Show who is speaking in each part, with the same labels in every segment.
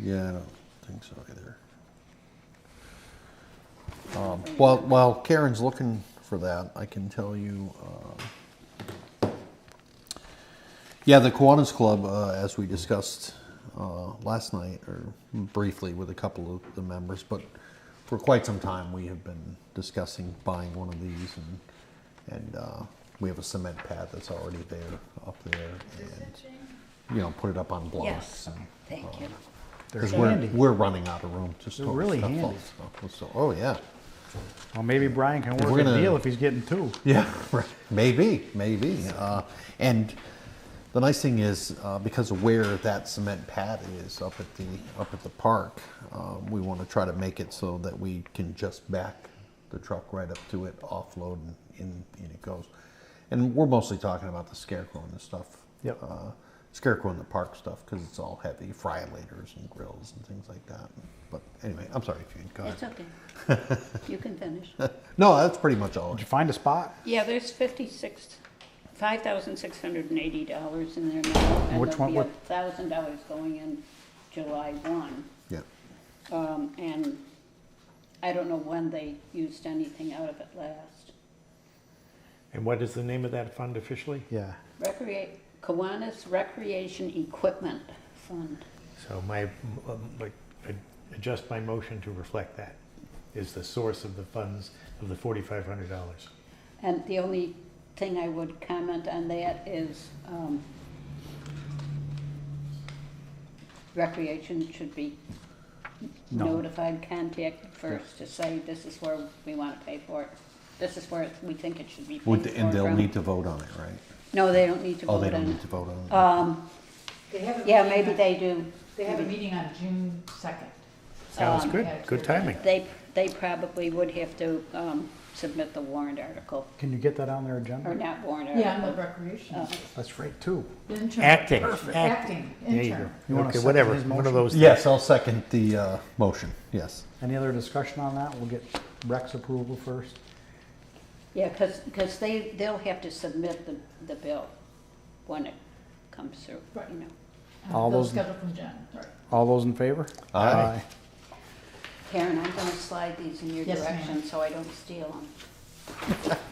Speaker 1: Yeah, I don't think so either. Um, While, while Karen's looking for that, I can tell you, um, yeah, the Kiwanis Club, uh, as we discussed uh, last night, or briefly with a couple of the members, but for quite some time, we have been discussing buying one of these, and, and uh, we have a cement pad that's already there, up there, and, you know, put it up on blocks.
Speaker 2: Yes,
Speaker 1: and,
Speaker 2: thank
Speaker 1: uh,
Speaker 2: you.
Speaker 1: because
Speaker 3: They're
Speaker 1: we're,
Speaker 3: handy.
Speaker 1: we're running out of room to store
Speaker 3: really
Speaker 1: stuff
Speaker 3: handy.
Speaker 1: also. So, oh yeah,
Speaker 3: Well, maybe Brian can
Speaker 1: If
Speaker 3: work
Speaker 1: we're
Speaker 3: a
Speaker 1: gonna-
Speaker 3: deal if he's getting two.
Speaker 1: yeah, right. maybe, maybe. Uh, and the nice thing is uh, because of where that cement pad is up at the up at the park, uh, we want to try to make it so that we can just back the truck right up to it, offload, and in, in it goes. And we're mostly talking about the scarecrow and the stuff.
Speaker 3: Yep.
Speaker 1: Uh, scarecrow in the park stuff because it's all heavy fryolators and grills and things like that. But anyway, I'm sorry, Gene. Go ahead.
Speaker 2: It's okay. You can finish.
Speaker 1: No, that's pretty much all.
Speaker 3: Did you find a spot?
Speaker 2: Yeah, there's fifty-six, five thousand six hundred and eighty dollars in there now.
Speaker 3: Which one-
Speaker 2: And there'll
Speaker 3: what-
Speaker 2: be a thousand dollars going in July one.
Speaker 1: Yeah.
Speaker 2: Um, and I don't know when they used anything out of it last.
Speaker 4: And what is the name of that fund officially?
Speaker 3: Yeah.
Speaker 2: Recreate, Kiwanis Recreation Equipment Fund.
Speaker 4: So my, um, like, I adjust my motion to reflect that, is the source of the funds of the forty-five hundred dollars.
Speaker 2: And the only thing I would comment on that is, um, recreation should be
Speaker 3: No.
Speaker 2: notified, contacted first to say, this is where we wanna pay for it. This is where we think it should be paid
Speaker 1: Would,
Speaker 2: for
Speaker 1: and they'll
Speaker 2: from."
Speaker 1: need to vote on it, right?
Speaker 2: No, they don't need to
Speaker 1: Oh,
Speaker 2: vote
Speaker 1: they don't
Speaker 2: on
Speaker 1: need to vote
Speaker 2: it.
Speaker 1: on
Speaker 2: Um,
Speaker 5: They have a
Speaker 2: yeah,
Speaker 5: meeting
Speaker 2: maybe
Speaker 5: on-
Speaker 2: they do.
Speaker 5: They have a meeting on June second. Um,
Speaker 4: Sounds good,
Speaker 5: at-
Speaker 4: good timing.
Speaker 2: They, they probably would have to, um, submit the warrant article,
Speaker 3: Can you get that on their
Speaker 2: or
Speaker 3: agenda?
Speaker 2: not warrant
Speaker 5: Yeah, on
Speaker 2: article.
Speaker 5: the recreation.
Speaker 2: Oh.
Speaker 3: That's right, too.
Speaker 5: Intern.
Speaker 4: Acting,
Speaker 5: Perfect.
Speaker 4: acting.
Speaker 5: Acting,
Speaker 4: There you go.
Speaker 5: intern.
Speaker 3: You wanna
Speaker 4: Okay,
Speaker 3: second
Speaker 4: whatever,
Speaker 3: his
Speaker 4: one of
Speaker 3: motion?
Speaker 4: those.
Speaker 1: it. Yes, I'll second the uh, motion, yes.
Speaker 3: Any other discussion on that? We'll get Breck's approval first.
Speaker 2: Yeah, because, they, they'll have to submit the, the bill when it comes through,
Speaker 5: Right.
Speaker 2: you know.
Speaker 5: Um,
Speaker 3: All
Speaker 5: Bill
Speaker 3: those-
Speaker 5: scheduled from Jen, right.
Speaker 3: All those in favor?
Speaker 1: Aye.
Speaker 2: Karen, I'm gonna slide these in your
Speaker 5: Yes, ma'am.
Speaker 2: direction so I don't steal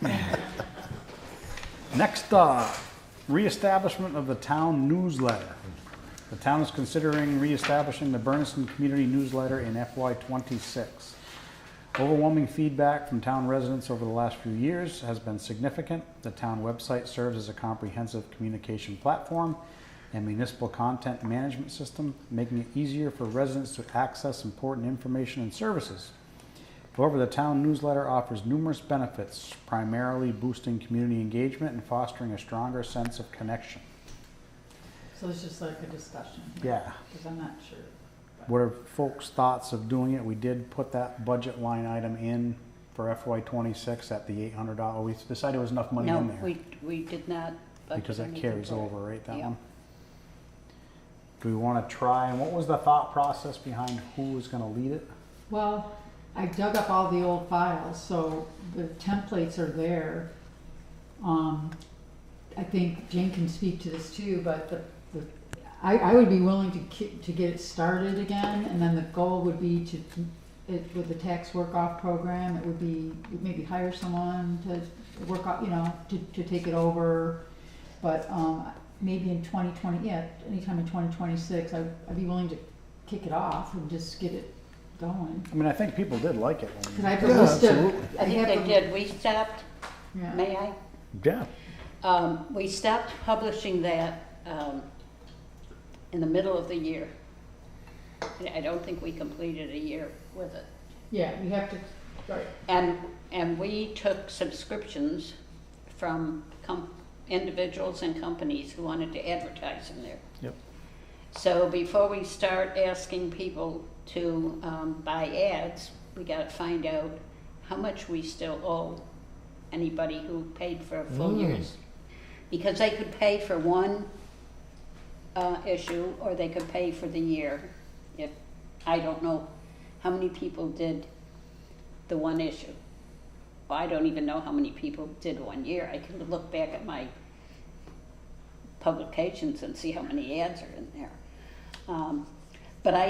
Speaker 2: them.
Speaker 3: Next, uh, reestablishment of the town newsletter. The town is considering reestablishing the Berniston Community Newsletter in FY twenty-six. Overwhelming feedback from town residents over the last few years has been significant. The town website serves as a comprehensive communication platform and municipal content management system, making it easier for residents to access important information and services. However, the town newsletter offers numerous benefits, primarily boosting community engagement and fostering a stronger sense of connection.
Speaker 5: So it's just like a discussion.
Speaker 3: Yeah.
Speaker 5: Because I'm not sure.
Speaker 3: What are folks' thoughts of doing it? We did put that budget line item in for FY twenty-six at the eight hundred dollar, we decided it was enough money in
Speaker 2: No,
Speaker 3: there.
Speaker 2: we, we did not. budget
Speaker 3: Because that
Speaker 2: anything
Speaker 3: carries
Speaker 2: for it.
Speaker 3: over, right, that
Speaker 2: Yeah.
Speaker 3: one? Do we wanna try, and what was the thought process behind who was gonna lead it?
Speaker 5: Well, I dug up all the old files, so the templates are there. Um, I think Jane can speak to this too, but the, the, I, I would be willing to ki- to get it started again, and then the goal would be to, it, with the tax work-off program, it would be, maybe hire someone to work off, you know, to, to take it over. But, um, maybe in twenty twenty, yeah, anytime in twenty twenty-six, I'd, I'd be willing to kick it off and just get it going.
Speaker 3: I mean, I think people did like it. when we-
Speaker 5: Cause I have a
Speaker 1: Yeah,
Speaker 5: list
Speaker 1: absolutely.
Speaker 5: of.
Speaker 2: I think
Speaker 5: have
Speaker 2: they
Speaker 5: a-
Speaker 2: did, we stopped,
Speaker 5: yeah.
Speaker 2: may I?
Speaker 4: Yeah.
Speaker 2: Um, we stopped publishing that, um, in the middle of the year. And I don't think we completed a year with it.
Speaker 5: Yeah, we have to, right.
Speaker 2: And, and we took subscriptions from com- individuals and companies who wanted to advertise in there.
Speaker 3: Yep.
Speaker 2: So before we start asking people to um, buy ads, we gotta find out how much we still owe anybody who paid for a full year's. Because they could pay for one uh, issue, or they could pay for the year. If, I don't know how many people did the one issue. Well, I don't even know how many people did one year. I can look back at my publications and see how many ads are in there. Um, but I